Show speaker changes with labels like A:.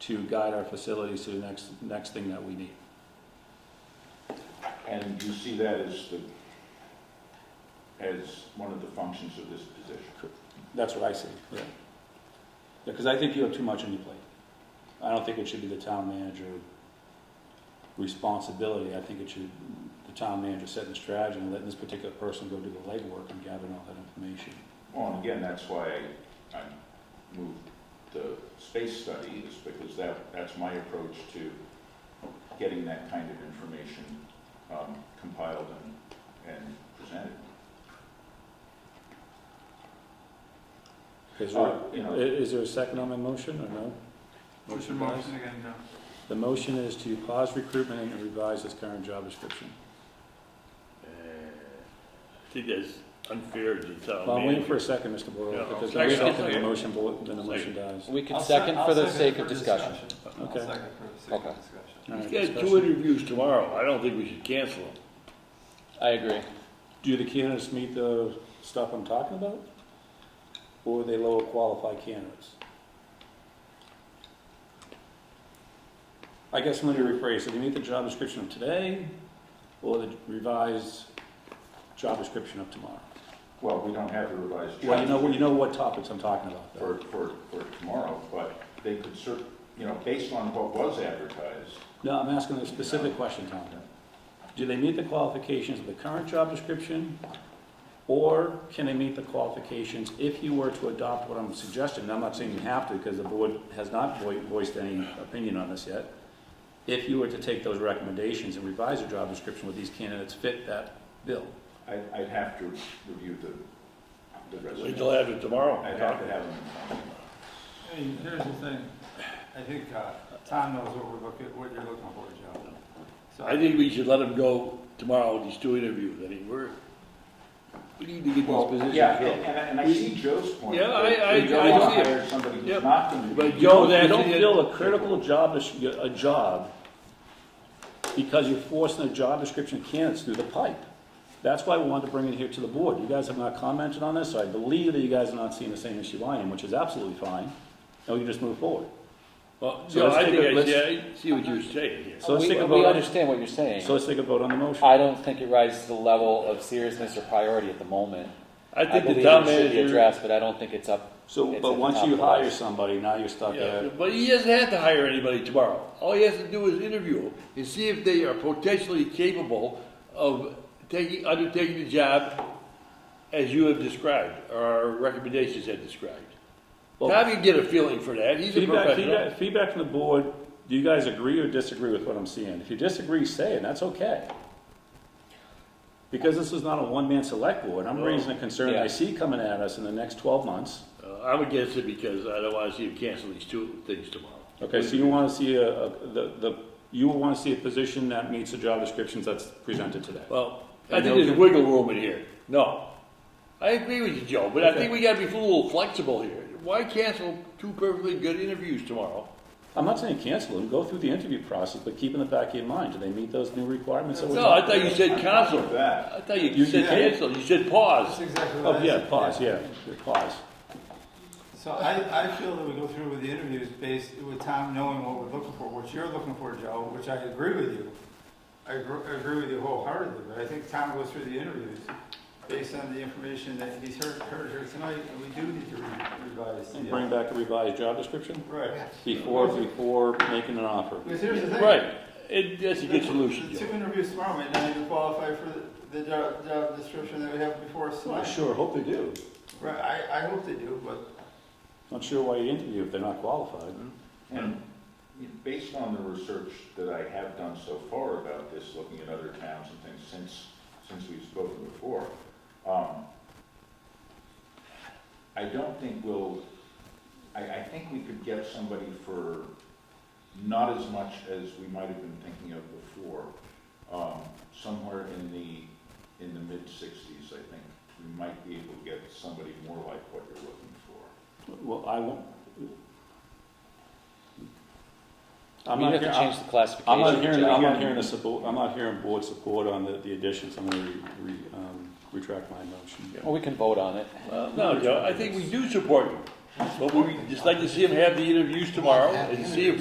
A: to guide our facilities to the next, next thing that we need.
B: And you see that as the, as one of the functions of this position.
A: That's what I see, yeah. Because I think you have too much on your plate. I don't think it should be the town manager responsibility. I think it should, the town manager setting the strategy and letting this particular person go do the legwork and gathering all that information.
B: Well, and again, that's why I, I moved the space study is because that, that's my approach to getting that kind of information um, compiled and, and presented.
A: Is there,
B: Uh, You
A: i-
B: know,
A: is there a second on my motion or no?
C: Motion, motion again, no.
A: The motion is to pause recruitment and revise this current job description.
D: Uh, I think that's unfair to the town
A: Well, I'm waiting for
D: manager.
A: a second, Mr. Boyle,
D: Yeah,
A: because
D: okay.
A: if I second the
D: Second.
A: motion, bo- then the motion dies.
E: We could
C: I'll
E: second
C: sec-
E: for
C: I'll
E: the
C: second
E: sake
C: for
E: of discussion.
C: I'll
A: Okay.
C: second for the sake
E: Okay.
C: of discussion.
A: All right,
D: He's got two
A: discussion.
D: interviews tomorrow, I don't think we should cancel them.
E: I agree.
A: Do the candidates meet the stuff I'm talking about? Or are they lower qualified candidates? I guess let me rephrase, do they meet the job description of today or the revised job description of tomorrow?
B: well, we don't have the revised.
A: Well, you know,
B: charge
A: you know what topics I'm talking about. though.
B: For, for, for tomorrow, but they could cer, you know, based on what was advertised,
A: No, I'm asking a specific question, Tom. Do they meet the qualifications of the current job description? Or can they meet the qualifications if you were to adopt what I'm suggesting? And I'm not saying you have to, because the board has not voi- voiced any opinion on this yet. If you were to take those recommendations and revise your job description, would these candidates fit that bill?
B: I'd, I'd have to review the, the
D: Wait
B: resume.
D: till after tomorrow.
B: I'd have to have them.
C: I mean, here's the thing, I think, uh, Tom knows what we're looking, what you're looking for, Joe. So
D: I think we should let him go tomorrow with these two interviews, I mean, we're, we need to get this position
B: Yeah, and,
D: filled.
B: and I- and I see Joe's point.
D: Yeah, I-
B: that
D: I-
B: We don't
D: I
B: want
D: see it.
B: to hire somebody
D: Yep.
B: who's not going to be.
D: But
A: You
D: Joe,
A: don't-
D: that's-
A: You don't feel a critical job, des- a job, because you're forcing a job description candidates through the pipe. That's why we wanted to bring it here to the board. You guys have not commented on this, so I believe that you guys are not seeing the same issue I am, which is absolutely fine. And we can just move forward.
D: Well,
A: So
D: no,
A: let's
D: I
A: take
D: think,
A: a-
D: I
A: let's-
D: see, I see what you're saying here.
A: So let's
E: we,
A: take a
E: we
A: vote on-
E: understand what you're saying.
A: So let's take a vote on the motion.
E: I don't think it rises to the level of seriousness or priority at the moment.
D: I think the
E: believe
D: town
E: it should be
D: manager,
E: addressed, but I don't think it's up.
A: So,
E: it's at
A: but
E: the
A: once
E: top
A: you
E: of the
A: hire
E: list.
A: somebody, now you're stuck
D: yeah,
A: at,
D: but he doesn't have to hire anybody tomorrow. All he has to do is interview them and see if they are potentially capable of taking, undertaking the job as you have described, or our recommendations have described.
A: Well-
D: Tom can get a feeling for that, he's a
A: feedback,
D: professional.
A: feedback, feedback from the board. Do you guys agree or disagree with what I'm seeing? If you disagree, say it, that's okay. Because this is not a one-man select board,
D: Oh,
A: I'm raising a concern I
E: Yeah.
A: see coming at us in the next twelve months.
D: Uh, I'm against it because I don't wanna see him cancel these two things tomorrow.
A: Okay, so you wanna see a, a, the, the, you wanna see a position that meets the job descriptions that's presented today.
D: Well, I
A: And
D: think
A: they'll
D: there's
A: give-
D: wiggle room in here. No. I agree with you, Joe, but I
A: Okay.
D: think we gotta be a little flexible here. Why cancel two perfectly good interviews tomorrow?
A: I'm not saying cancel them, go through the interview process, but keep in the back of your mind, do they meet those new requirements that we're
D: No, I
A: talking
D: thought you
A: about?
D: said
B: I'm fine
D: cancel.
B: with that.
D: I thought you
A: You
D: said
A: can't.
D: cancel, you said
C: That's
D: pause.
C: exactly what I
A: Oh,
C: said.
A: yeah, pause, yeah, yeah, pause.
C: So I, I feel that we go through with the interviews based with Tom knowing what we're looking for, what you're looking for, Joe, which I agree with you. I agree, I agree with you wholeheartedly, but I think Tom goes through the interviews based on the information that he's heard, heard here tonight, and we do need to re- revise. the-
A: And bring back a revised job description
C: Right.
A: before, before making an offer.
C: Because here's the thing.
D: Right, it, that's a good
C: The
D: solution,
C: two
D: Joe.
C: interviews tomorrow might not even qualify for the, the job, job description that we have before us
A: I
C: tonight.
A: sure hope they do.
C: Right, I, I hope they do, but
A: Not sure why you interview if they're not qualified.
B: And you know, based on the research that I have done so far about this, looking at other towns and things since, since we've spoken before, um, I don't think we'll, I, I think we could get somebody for not as much as we might have been thinking of before, um, somewhere in the, in the mid-sixties, I think. We might be able to get somebody more like what you're looking for.
A: Well, I won't. I'm
E: we
A: not,
E: have
A: hear-
E: to change the classification.
A: I'm not hearing,
E: Joe.
A: I'm not hearing a support, I'm not hearing board support on the, the additions, I'm gonna re, re- um, retract my motion.
E: Well, we can vote on it.
D: Uh, No, Joe, I think we do support you. But we, just like to see him have the interviews tomorrow and see if